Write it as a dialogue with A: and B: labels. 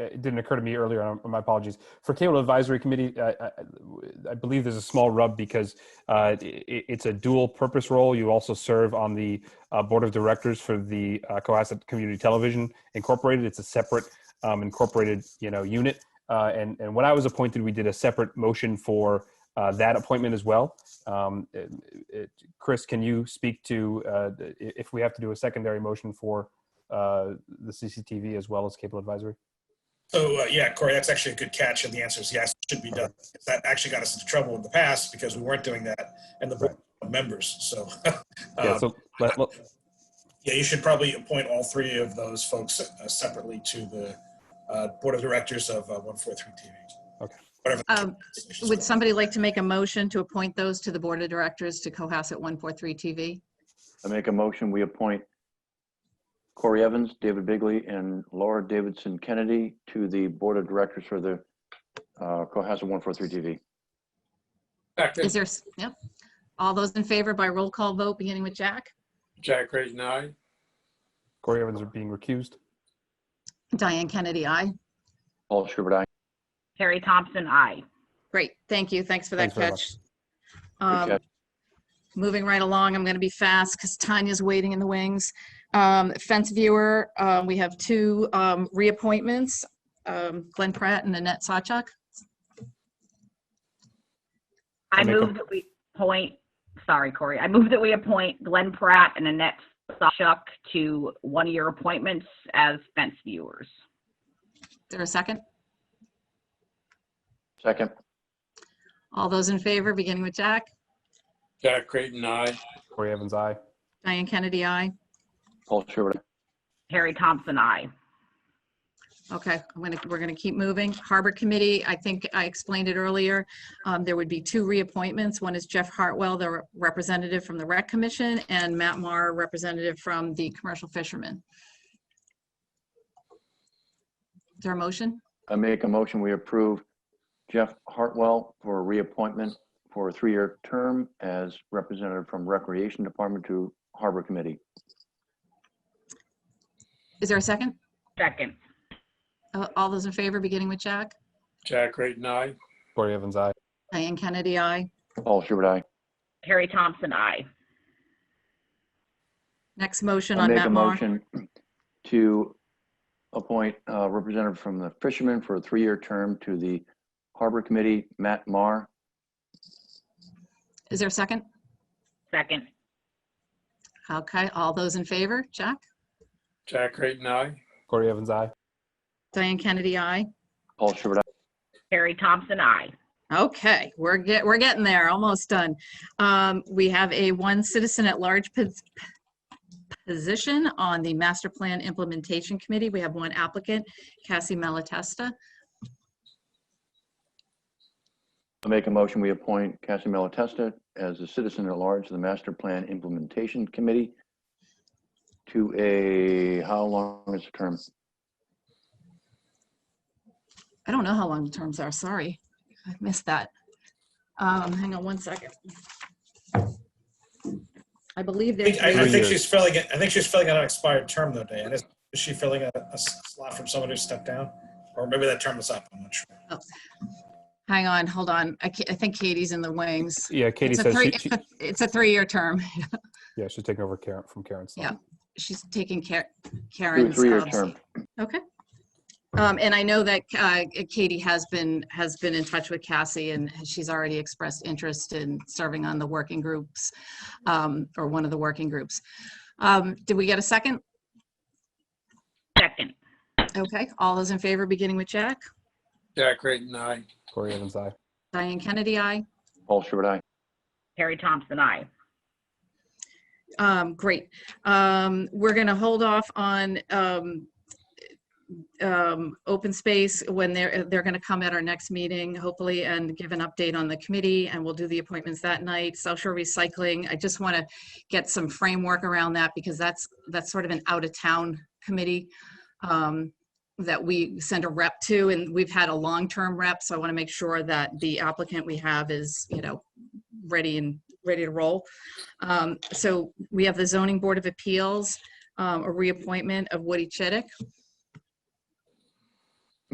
A: it didn't occur to me earlier. and My apologies. For cable advisory committee, I, I, I believe there's a small rub because uh, it, it's a dual purpose role. You also serve on the uh, board of directors for the uh, Cohasset Community Television Incorporated. It's a separate um, incorporated, you know, unit. Uh, and and when I was appointed, we did a separate motion for uh, that appointment as well. Um, it- it- Chris, can you speak to uh, i- if we have to do a secondary motion for uh, the CCTV as well as cable advisory?
B: So, uh, yeah, Corey, that's actually a good catch, and the answer is yes, it should be done. That actually got us into trouble in the past because we weren't doing that, and the board members, so.
A: Yeah,
B: um,
A: so let, let-
B: Yeah, you should probably appoint all three of those folks uh, separately to the uh, Board of Directors of uh, 143 TV.
A: Okay.
B: Whatever. the
C: Um,
B: decision is.
C: Would somebody like to make a motion to appoint those to the Board of Directors to Cohasset 143 TV?
D: I make a motion, we appoint Corey Evans, David Bigley, and Laura Davidson Kennedy to the Board of Directors for the uh, Cohasset 143 TV.
C: Is
E: Second,
C: there, s- yep. All those in favor by roll call vote, beginning with Jack?
E: Jack Creighton, aye.
A: Corey Evans are being recused.
C: Diane Kennedy, aye.
D: Paul Schubert, aye.
F: Terry Thompson, I.
C: Great, thank you. Thanks for that
A: Thanks very
C: catch.
A: much.
C: Um,
D: catch.
C: Moving right along, I'm going to be fast because Tanya's waiting in the wings. Um, Fence viewer, uh, we have two um, reappointments, um, Glenn Pratt and Annette Sawchuk.
F: I
A: I'll make a-
F: move that we appoint, sorry, Corey, I move that we appoint Glenn Pratt and Annette Sawchuk to one-year appointments as fence viewers.
C: Is there a second?
D: Second,
C: All those in favor, beginning with Jack?
E: Jack Creighton, aye.
A: Corey Evans, aye.
C: Diane Kennedy, aye.
D: Paul Schubert, aye.
F: Terry Thompson, I.
C: Okay, I'm gonna, we're gonna keep moving. Harbor Committee, I think I explained it earlier. Um, there would be two reappointments. One is Jeff Hartwell, the re- representative from the Rec Commission, and Matt Maher, representative from the Commercial Fishermen. Is there a motion?
D: I make a motion, we approve Jeff Hartwell for a reappointment for a three-year term as representative from Recreation Department to Harbor Committee.
C: Is there a second?
F: Second,
C: Uh, All those in favor, beginning with Jack?
E: Jack Creighton, aye.
A: Corey Evans, aye.
C: Diane Kennedy, aye.
D: Paul Schubert, aye.
F: Terry Thompson, I.
C: Next motion
D: I
C: on
D: make a
C: Matt Maher.
D: motion to appoint a representative from the fishermen for a three-year term to the Harbor Committee, Matt Marr.
C: Is there a second?
F: Second,
C: Okay, all those in favor, Jack?
E: Jack Creighton, aye.
A: Corey Evans, aye.
C: Diane Kennedy, aye.
D: Paul Schubert, aye.
F: Terry Thompson, I.
C: Okay, we're get, we're getting there, almost done. Um, we have a one citizen at large pos- position on the Master Plan Implementation Committee. We have one applicant, Cassie Malatesta.
D: I make a motion, we appoint Cassie Malatesta as a citizen at large to the Master Plan Implementation Committee to a, how long is the term?
C: I don't know how long the terms are, sorry. I missed that. Um, hang on one second. I believe
B: I
C: there's,
B: think- I I
A: Three
B: think
A: years.
B: she's filling, it. I think she's filling out an expired term though, Diane. Is is she filling a a slot from someone who stepped down? Or maybe that term is up, I'm not sure.
C: hang on, hold on. I, ca- I think Katie's in the wings.
A: Yeah, Katie
C: It's a
A: says
C: three,
A: she, she,
C: it's a- it's a three-year term.
A: yeah, she's taking over Karen from Karen's. slot.
C: Yeah. She's taking care,
D: To a
C: Karen's.
D: three-year
C: um,
D: term.
C: Okay. Um, and I know that, uh, Katie has been, has been in touch with Cassie and she's already expressed interest in serving on the working groups, um, or one of the working groups. Um, did we get a second?
F: Second,
C: Okay, all those in favor, beginning with Jack?
E: Jack Creighton, aye.
A: Corey Evans, aye.
C: Diane Kennedy, aye.
D: Paul Schubert, aye.
F: Terry Thompson, I.
C: Um, great. Um, we're gonna hold off on, um, um, open space when they're, they're gonna come at our next meeting, hopefully, and give an update on the committee, and we'll do the appointments that night. South Shore Recycling, I just wanna get some framework around that, because that's, that's sort of an out-of-town committee, um, that we send a rep to, and we've had a long-term rep, so I wanna make sure that the applicant we have is, you know, ready and, ready to roll. Um, So we have the Zoning Board of Appeals, um, a reappointment of Woody Chittick.